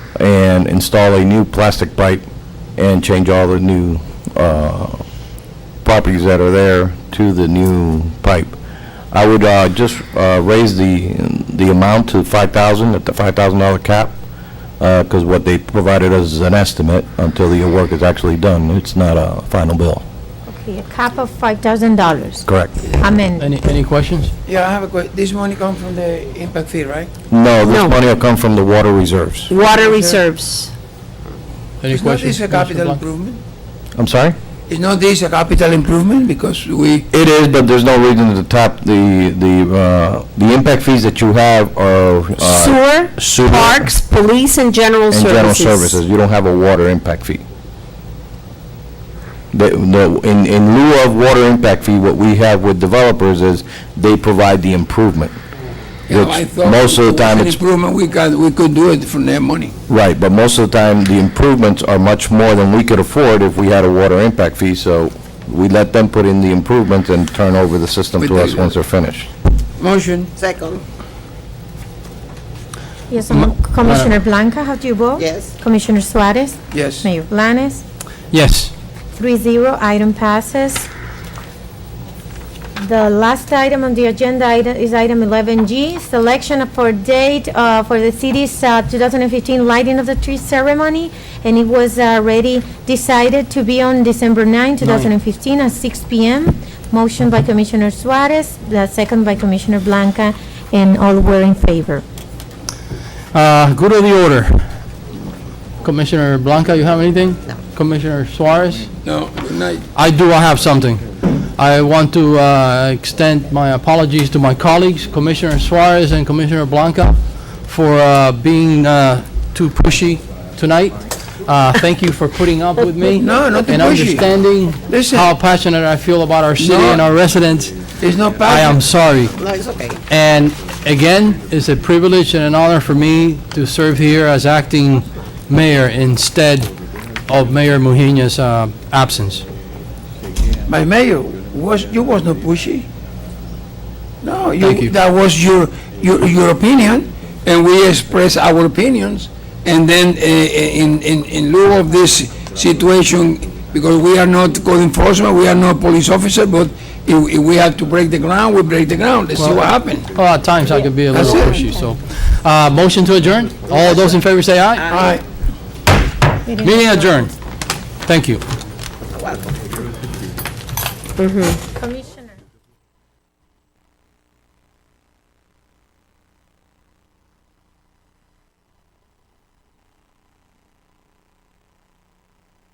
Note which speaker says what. Speaker 1: and install a new plastic pipe and change all the new uh, properties that are there to the new pipe. I would uh, just uh, raise the, the amount to 5,000, at the $5,000 cap, because what they provided us is an estimate until the work is actually done. It's not a final bill.
Speaker 2: Okay, a cap of $5,000.
Speaker 1: Correct.
Speaker 2: Amen.
Speaker 3: Any, any questions?
Speaker 4: Yeah, I have a question. This money come from the impact fee, right?
Speaker 1: No, this
Speaker 5: No.
Speaker 1: money will come from the water reserves.
Speaker 5: Water reserves.
Speaker 3: Any
Speaker 4: It's not
Speaker 3: questions? Commissioner
Speaker 4: this a capital
Speaker 3: Blanca?
Speaker 4: improvement?
Speaker 1: I'm sorry?
Speaker 4: Is not this a capital improvement because we,
Speaker 1: It is, but there's no reason to top the, the, uh, the impact fees that you have are uh,
Speaker 5: Sewer,
Speaker 1: sewer
Speaker 5: parks, police, and general
Speaker 1: and
Speaker 5: services.
Speaker 1: general services. You don't have a water impact fee. The, the, in, in lieu of water impact fee, what we have with developers is they provide the improvement.
Speaker 4: you know,
Speaker 1: Which
Speaker 4: I thought.
Speaker 1: most of the
Speaker 4: it was
Speaker 1: time
Speaker 4: an
Speaker 1: it's-
Speaker 4: Improvement, we can, we could do it from their money.
Speaker 1: Right, but most of the time, the improvements are much more than we could afford if we had a water impact fee, so we let them put in the improvements and turn over the system
Speaker 4: We
Speaker 1: to
Speaker 4: do
Speaker 1: us
Speaker 4: that.
Speaker 1: once they're finished.
Speaker 4: Motion,
Speaker 6: Second,
Speaker 2: Yes, um, Commissioner Blanca, how do you vote?
Speaker 6: yes.
Speaker 2: Commissioner Suarez?
Speaker 4: yes.
Speaker 2: Mayor Blanes?
Speaker 3: Yes.
Speaker 2: Three zero, item passes. The last item on the agenda item- is item 11G, selection for date uh, for the city's uh, 2015 lighting of the tree ceremony, and it was already decided to be on December 9, 2015, at 6 p.m. Motion by Commissioner Suarez, the second by Commissioner Blanca, and all were in favor.
Speaker 3: Uh, go to the order. Commissioner Blanca, you have anything? No. Commissioner Suarez?
Speaker 4: No, good night.
Speaker 3: I do, I have something. I want to uh, extend my apologies to my colleagues, Commissioner Suarez and Commissioner Blanca, for uh, being uh, too pushy tonight. Uh, Thank you for putting up with me.
Speaker 4: No, not too
Speaker 3: And
Speaker 4: pushy.
Speaker 3: understanding
Speaker 4: Listen.
Speaker 3: how passionate I feel about our city and
Speaker 4: No.
Speaker 3: our residents.
Speaker 4: It's not
Speaker 3: I am
Speaker 4: passion.
Speaker 3: sorry.
Speaker 6: No, it's okay.
Speaker 3: And again, it's a privilege and an honor for me to serve here as acting mayor instead of Mayor Mujina's uh, absence.
Speaker 4: My mayor, was, you was not pushy. No,
Speaker 3: Thank you.
Speaker 4: you, that was your, your, your opinion, and we express our opinions. And then, uh, in, in, in lieu of this situation, because we are not code enforcement, we are not police officer, but if, if we have to break the ground, we break the ground. Let's see what happens.
Speaker 3: Well, at times I could be a little
Speaker 4: That's
Speaker 3: pushy, so. Uh, Motion to adjourn? All those in favor say aye.
Speaker 4: All right.
Speaker 3: Meeting adjourned. Thank you.
Speaker 2: Commissioner